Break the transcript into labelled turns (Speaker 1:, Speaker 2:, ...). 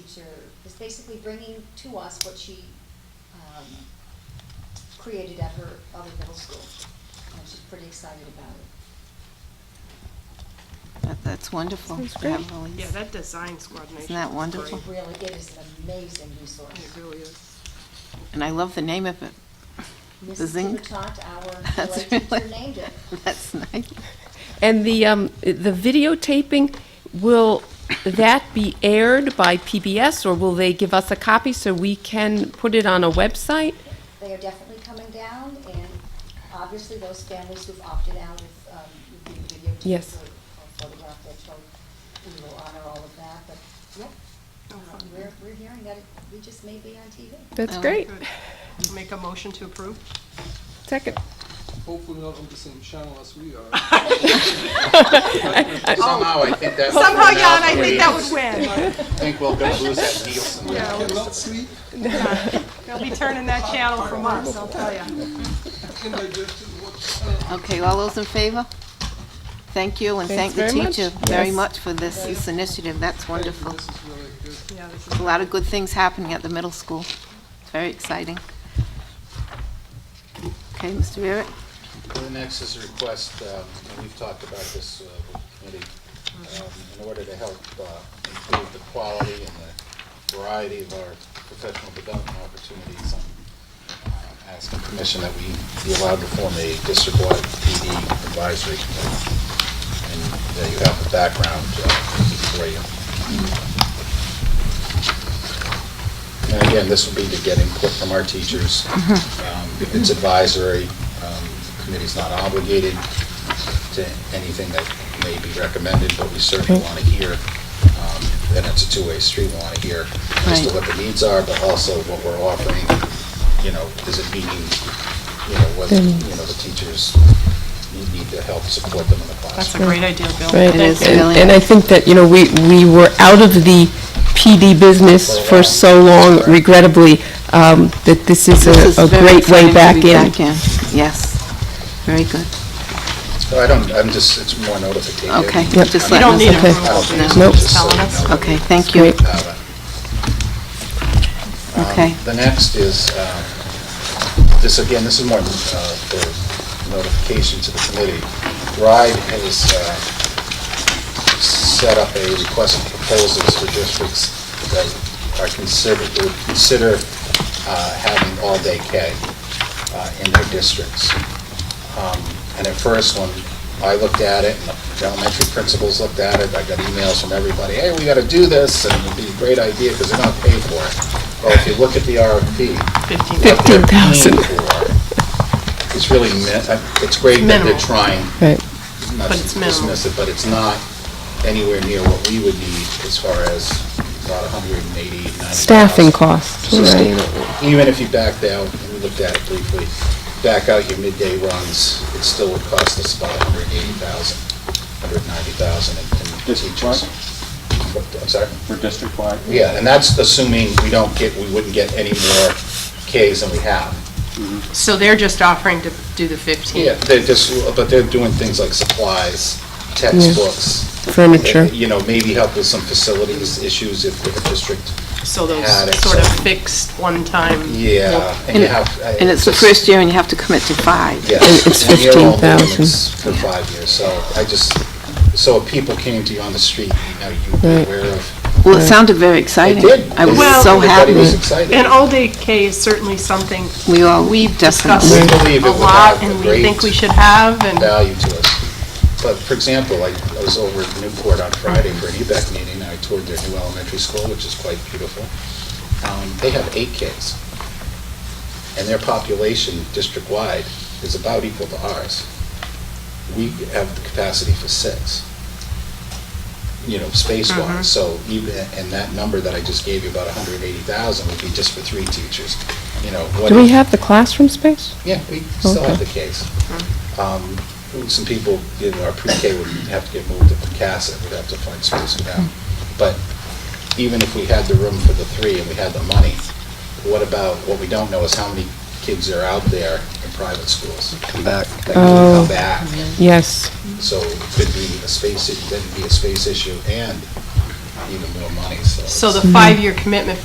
Speaker 1: user is basically bringing to us what she, um, created at her other middle school. And she's pretty excited about it.
Speaker 2: That, that's wonderful.
Speaker 3: Sounds
Speaker 2: That
Speaker 3: great.
Speaker 2: really is-
Speaker 4: Yeah, that design squad nation.
Speaker 2: that
Speaker 4: is
Speaker 2: wonderful?
Speaker 4: great.
Speaker 1: Really, it is an amazing resource.
Speaker 4: It really is.
Speaker 2: And I love the name of it. The
Speaker 1: Mrs.
Speaker 2: zinc.
Speaker 1: Kubatat, our
Speaker 2: That's
Speaker 1: PLA teacher,
Speaker 2: really-
Speaker 1: named it.
Speaker 2: That's nice.
Speaker 3: And the, um, the videotaping, will that be aired by PBS, or will they give us a copy so we can put it on a website?
Speaker 1: They are definitely coming down, and obviously those families who've opted out with, um, with the videotape
Speaker 3: Yes.
Speaker 1: or or photograph their children, we will honor all of that, but, yeah, we're, we're hearing that it- we just may be on TV.
Speaker 3: That's
Speaker 2: Oh.
Speaker 3: great.
Speaker 4: Good. Make a motion to approve?
Speaker 3: Second.
Speaker 5: Hopefully not on the same channel as we are.
Speaker 6: Somehow, I think that.
Speaker 4: Somehow, Jan, I think that would win.
Speaker 6: I think we're gonna lose that Nielsen.
Speaker 5: I cannot sleep,
Speaker 4: They'll be turning that channel from us, I'll tell you.
Speaker 5: indigestion, what,
Speaker 2: Okay, all those in favor? Thank you, and thank
Speaker 3: Thanks
Speaker 2: the
Speaker 3: very much.
Speaker 2: teacher very
Speaker 3: Yes.
Speaker 2: much for this, this initiative. That's wonderful.
Speaker 5: this is really good.
Speaker 4: Yeah, this
Speaker 2: A lot of good things happening at the middle school. It's very exciting. Okay, Mr. Barrett?
Speaker 6: The next is a request, um, and we've talked about this uh, with the committee, um, in order to help uh, improve the quality and the variety of our professional development opportunities. I'm uh, asking permission that we be allowed to form a district-wide PD advisory. committee. And uh, you have the background uh, for you. And again, this will be to get input from our teachers. Um, It's advisory, um, the committee's not obligated to anything that may be recommended, but we certainly want to hear, um, then it's a two-way street, we want to hear as to
Speaker 2: Right.
Speaker 6: what the needs are, but also what we're offering, you know, is it meeting, you know, what, you know, the teachers need- need to help support them in the classroom.
Speaker 4: That's a great idea, Bill.
Speaker 3: Right,
Speaker 2: It is
Speaker 3: and-
Speaker 2: really-
Speaker 3: And I think that, you know, we, we were out of the PD business for so long regrettably, um, that this is
Speaker 2: This
Speaker 3: a, a
Speaker 2: is very
Speaker 3: great way
Speaker 2: exciting to
Speaker 3: back
Speaker 2: be
Speaker 3: in.
Speaker 2: Yes, very good.
Speaker 6: So I don't, I'm just, it's more notification.
Speaker 2: Okay,
Speaker 3: Yep.
Speaker 2: just
Speaker 3: You
Speaker 2: let
Speaker 4: don't
Speaker 2: us
Speaker 4: need
Speaker 2: know.
Speaker 3: Okay.
Speaker 6: I don't think it's
Speaker 3: Nope.
Speaker 6: just so you know.
Speaker 2: Okay, thank you.
Speaker 6: Uh,
Speaker 2: Okay,
Speaker 6: The next is, um, this, again, this is more uh, for notification to the committee. RIDE has uh, set up a request for proposals for districts that are considered, would consider uh, having all-day K uh, in their districts. Um, And at first, when I looked at it, and the elementary principals looked at it, I got emails from everybody, hey, we gotta do this, and it'd be a great idea, because they're not paid for it. Well, if you look at the
Speaker 4: Fifteen.
Speaker 6: RFP, what they're paying
Speaker 3: 15,000.
Speaker 6: for, It's really, min- uh, it's great that they're
Speaker 4: Minimal.
Speaker 6: trying
Speaker 3: Right.
Speaker 6: not
Speaker 4: But
Speaker 6: to
Speaker 4: it's minimal.
Speaker 6: dismiss it, but it's not anywhere near what we would need as far as about 180, 90.
Speaker 3: Staffing costs, right.
Speaker 6: Even if you backed out, and we looked at it briefly, back out your midday runs, it still would cost us about 180,000, 190,000 in- in teachers. What, I'm sorry?
Speaker 7: for district-wide?
Speaker 6: Yeah, and that's assuming we don't get, we wouldn't get any more Ks than we have.
Speaker 4: So they're just offering to do the fifteen?
Speaker 6: Yeah, they're just, but they're doing things like supplies, textbooks. eh,
Speaker 3: Furniture.
Speaker 6: You know, maybe help with some facilities issues if if a district,
Speaker 4: So those
Speaker 6: Yeah, that's-
Speaker 4: sort of fixed, one-time?
Speaker 6: yeah. And you have- eh,
Speaker 2: and it's the first year and you have to commit to five.
Speaker 6: Yes.
Speaker 3: and it's
Speaker 6: and you're all
Speaker 3: 15,000.
Speaker 6: limits For five years, so I just, so if people came to you on the street, you know, you'd be
Speaker 3: Right.
Speaker 6: aware of.
Speaker 2: Well, it sounded very
Speaker 6: They
Speaker 2: exciting.
Speaker 6: did.
Speaker 2: I was
Speaker 4: Well-
Speaker 2: so
Speaker 6: Everybody was
Speaker 2: happy.
Speaker 6: excited.
Speaker 4: And all-day K is certainly something
Speaker 2: We all, we
Speaker 4: discussed
Speaker 2: definitely,
Speaker 6: We believe it
Speaker 4: a
Speaker 6: would
Speaker 4: lot
Speaker 6: have a
Speaker 4: and we
Speaker 6: great-
Speaker 4: think we should have, and
Speaker 6: value to us. But for example, I I was over at Newport on Friday for an E EBEC meeting, and I toured their new elementary school, which is quite beautiful. Um, They have eight kids, and their population district-wide is about equal to ours. We have the capacity for six, you know, space-wise.
Speaker 4: Mm-hmm.
Speaker 6: So even, and that number that I just gave you, about 180,000, would be just for three teachers, you know. what
Speaker 3: Do we
Speaker 6: if-
Speaker 3: have the classroom space?
Speaker 6: yeah, we still have
Speaker 3: Okay.
Speaker 6: the case. Um, Some people, you know, our pre-K would have to get moved to Picasset, we'd have to find space for that. But even if we had the room for the three and we had the money, what about, what we don't know is how many kids are out there in private schools. Come back. That
Speaker 3: Oh.
Speaker 6: come back.
Speaker 3: Yes.
Speaker 6: So it could be a space, it could be a space issue and even more money, so.
Speaker 4: So
Speaker 6: it's-
Speaker 4: Mm-hmm. the five-year commitment